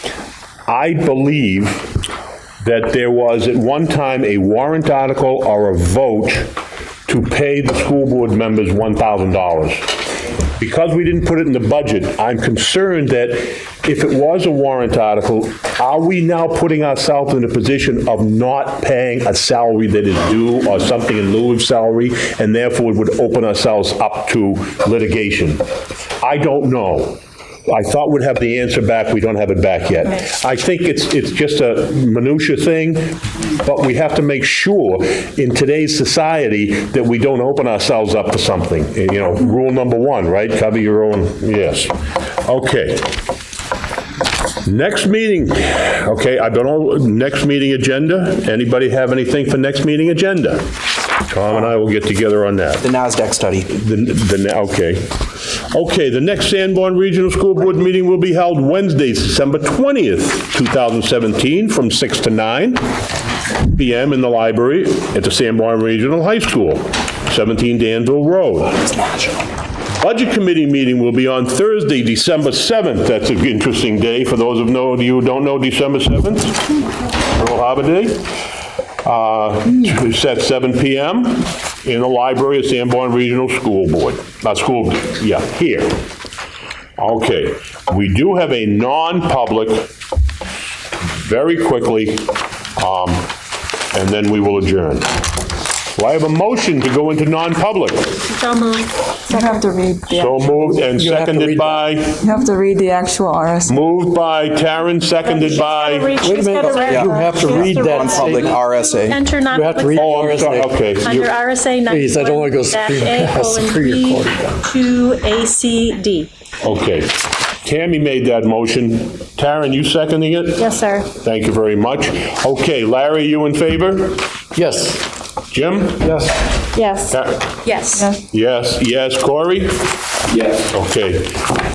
I believe that there was at one time a warrant article or a vote to pay the school board members $1,000. Because we didn't put it in the budget, I'm concerned that if it was a warrant article, are we now putting ourselves in a position of not paying a salary that is due or something in lieu of salary, and therefore would open ourselves up to litigation? I don't know. I thought we'd have the answer back, we don't have it back yet. I think it's, it's just a minutia thing, but we have to make sure in today's society that we don't open ourselves up to something. You know, rule number one, right? Cover your own, yes. Okay. Next meeting, okay, I don't know, next meeting agenda? Anybody have anything for next meeting agenda? Tom and I will get together on that. The NASDAQ study. The, the, ne- okay. Okay, the next Sanborn Regional School Board meeting will be held Wednesday, December 20th, 2017, from 6 to 9 PM in the library at the Sanborn Regional High School, 17 Danville Road. Budget Committee meeting will be on Thursday, December 7th. That's an interesting day. For those of know- you who don't know, December 7th, Pearl Harbor Day uh, to set 7 PM in the library of Sanborn Regional School Board, not school, yeah, here. Okay, we do have a non-public, very quickly, um, and then we will adjourn. Well, I have a motion to go into non-public. So moved. You have to read the, So moved and You have to seconded read by, you have to read the actual RS. moved by Taryn, seconded by, She's gotta read Yeah. that. You have to She has read to that read Public RSA. Enter You have to non-public read oh, I'm sorry, RSA. okay. under RSA Please, I don't wanna go screaming. That's pretty recorded. 91-A-colon-B-2-A-C-D. Okay. Tammy made that motion. Taryn, you seconding it? Yes, sir. Thank you very much. Okay, Larry, you in favor? Yes. Jim? Yes. Yes. Yes. Yes. Yes, yes. Corey? Yes. Okay.